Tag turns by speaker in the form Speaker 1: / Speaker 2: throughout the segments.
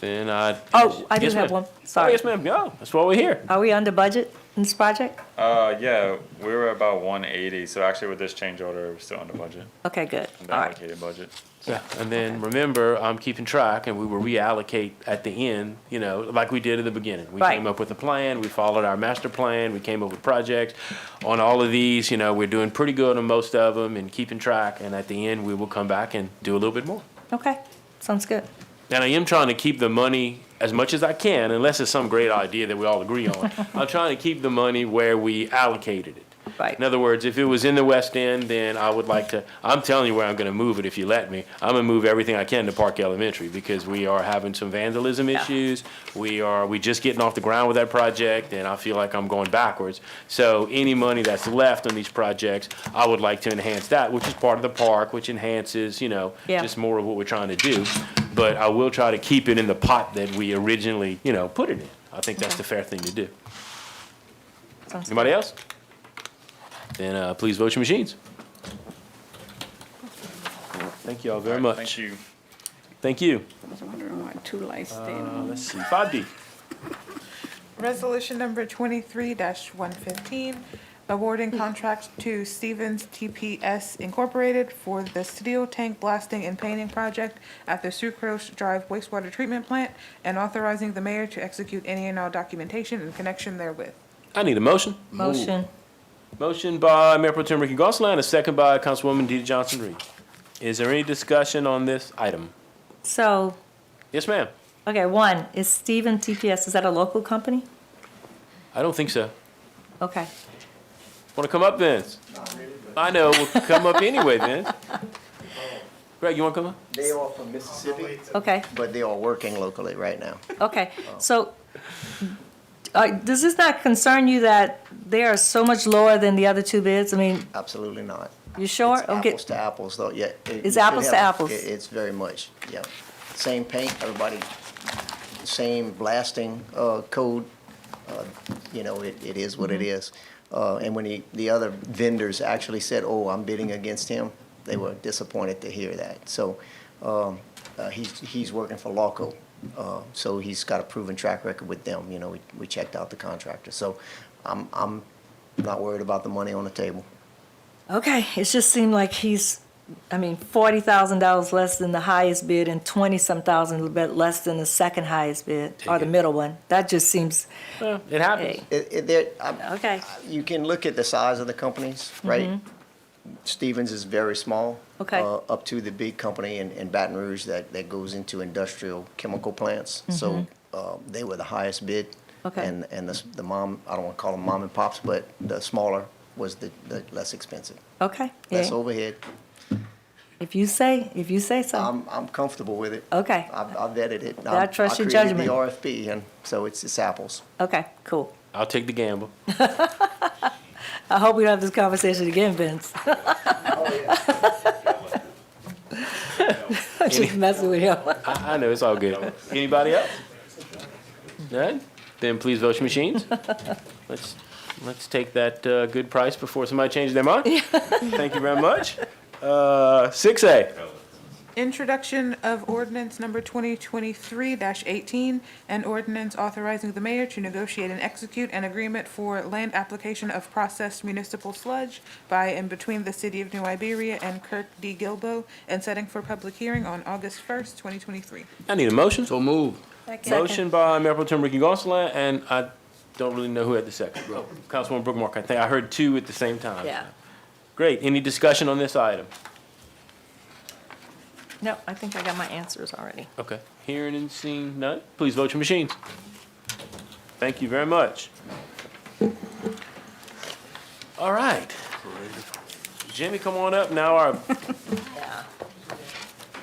Speaker 1: Then I.
Speaker 2: Oh, I do
Speaker 1: Yes,
Speaker 2: have
Speaker 1: ma'am.
Speaker 2: one. Sorry.
Speaker 1: Oh, yes, ma'am. Go. That's why we're here.
Speaker 2: Are we under budget in this project?
Speaker 3: Uh, yeah, we were about one eighty, so actually with this change order, we're still under budget,
Speaker 2: Okay, good.
Speaker 3: under
Speaker 2: All right.
Speaker 3: allocated budget.
Speaker 1: Yeah. And then remember, I'm keeping track, and we will reallocate at the end. You know, like we did at the beginning. We
Speaker 2: Right.
Speaker 1: came up with a plan. We followed our master plan. We came up with projects. On all of these, you know, we're doing pretty good on most of them, and keeping track. And at the end, we will come back and do a little bit more.
Speaker 2: Okay, sounds good.
Speaker 1: And I am trying to keep the money as much as I can, unless it's some great idea that we all agree on. I'm trying to keep the money where we allocated it.
Speaker 2: Right.
Speaker 1: In other words, if it was in the West End, then I would like to, I'm telling you where I'm gonna move it if you let me. I'm gonna move everything I can to Park Elementary, because we are having some vandalism issues. We are, we just getting off the ground with that project, and I feel like I'm going backwards. So any money that's left on these projects, I would like to enhance that, which is part of the park, which enhances, you know,
Speaker 2: Yeah.
Speaker 1: just more of what we're trying to do. But I will try to keep it in the pot that we originally, you know, put it in. I think that's the fair thing to do.
Speaker 2: Sounds
Speaker 1: Anybody else? Then uh, please vote your machines. Thank you all very much.
Speaker 3: Thank you.
Speaker 1: Thank you.
Speaker 4: I was wondering why two lights stayed
Speaker 1: Uh,
Speaker 4: on.
Speaker 1: Let's see, 5D.
Speaker 5: Resolution number twenty-three one fifteen, awarding contract to Stevens TPS Incorporated for the steel tank blasting and painting project at the Sucrose Drive wastewater treatment plant and authorizing the mayor to execute any and all documentation in connection therewith.
Speaker 1: I need a motion.
Speaker 2: Motion,
Speaker 1: Motion by Mayor Pro Tem Ricky Gonsalas, and a second by Councilwoman Deidre Johnson-Reed. Is there any discussion on this item?
Speaker 2: so,
Speaker 1: Yes, ma'am.
Speaker 2: okay, one, is Stephen TPS, is that a local company?
Speaker 1: I don't think so.
Speaker 2: Okay,
Speaker 1: Want to come up, Vince? I know, we'll come up anyway, Vince. Greg, you want to come up?
Speaker 6: They are from Mississippi,
Speaker 2: okay,
Speaker 6: but they are working locally right now.
Speaker 2: okay.
Speaker 6: Oh.
Speaker 2: So, uh, does this not concern you that they are so much lower than the other two bids? I mean,
Speaker 6: Absolutely not.
Speaker 2: you sure?
Speaker 6: It's
Speaker 2: Okay.
Speaker 6: apples to apples, though, yeah. it- you
Speaker 2: It's
Speaker 6: should
Speaker 2: apples to
Speaker 6: have-
Speaker 2: apples.
Speaker 6: it- It's very much, yeah. Same paint, everybody, same blasting uh, code. uh, You know, it, it is what it
Speaker 2: Mm-hmm.
Speaker 6: is. Uh, And when the, the other vendors actually said, oh, I'm bidding against him, they were disappointed to hear that. So um, uh, he's, he's working for LAWCO, uh, so he's got a proven track record with them. You know, we, we checked out the contractor. So I'm, I'm not worried about the money on the table.
Speaker 2: Okay, it just seemed like he's, I mean, forty thousand dollars less than the highest bid and twenty-some thousand bit less than the second highest bid, or the
Speaker 1: it.
Speaker 2: middle one. That just seems,
Speaker 1: Well, It happens.
Speaker 2: hey,
Speaker 6: It, it, there, I-
Speaker 2: okay, Mm-hmm.
Speaker 6: you can look at the size of the companies, right? Stevens is very small.
Speaker 2: Okay.
Speaker 6: uh, Up to the big company in, in Baton Rouge that, that goes into industrial chemical plants. So, uh, they were the highest bid.
Speaker 2: Mm-hmm. Okay.
Speaker 6: And, and the, s- the mom, I don't wanna call them mom and pops, but the smaller was the, the less expensive.
Speaker 2: okay.
Speaker 6: Less
Speaker 2: yeah.
Speaker 6: overhead.
Speaker 2: If you say, if you say so.
Speaker 6: I'm, I'm comfortable with it.
Speaker 2: Okay,
Speaker 6: I've, I've vetted it.
Speaker 2: Oh. I trust your judgment.
Speaker 6: I created the RFP and so it's, it's apples.
Speaker 2: okay, cool.
Speaker 1: I'll take the gamble.
Speaker 2: I hope we don't have this conversation again, Vince. I'm just messing with you.
Speaker 1: I, I know, it's all good. Anybody else? None? Then please vote your machines. Let's, let's take that, uh, good price before somebody changes their mind. Thank you very much. Uh, six A.
Speaker 5: Introduction of ordinance number twenty twenty-three eighteen, an ordinance authorizing the mayor to negotiate and execute an agreement for land application of processed municipal sludge by and between the city of New Iberia and Kirk D. Gilbo, and setting for public hearing on August first, twenty twenty-three.
Speaker 1: I need a motion.
Speaker 7: So move.
Speaker 1: Motion by Mayor Pro Tem Ricky Gonsalas, and I don't really know who had the second. Councilwoman Brooke Mark, I think I heard two at the same time.
Speaker 2: Yeah.
Speaker 1: Great. Any discussion on this item?
Speaker 2: No, I think I got my answers already.
Speaker 1: Okay. Hearing and seeing none, please vote your machines. Thank you very much. All right. Jimmy, come on up. Now our,
Speaker 2: Yeah.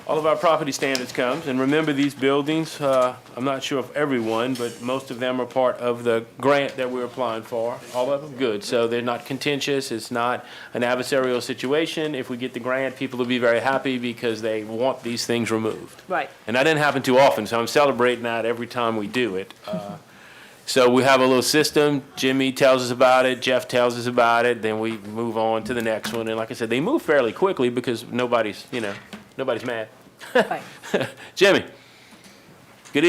Speaker 1: all of our property standards comes. And remember these buildings, uh, I'm not sure of everyone, but most of them are part of the grant that we're applying for. All of them? Good. So they're not contentious. It's not an adversarial situation. If we get the grant, people will be very happy because they want these things removed.
Speaker 2: Right.
Speaker 1: And that didn't happen too often, so I'm celebrating that every time we do it. Uh, So we have a little system. Jimmy tells us about it, Jeff tells us about it, then we move on to the next one. And like I said, they move fairly quickly because nobody's, you know, nobody's mad.
Speaker 2: Right.
Speaker 1: Jimmy,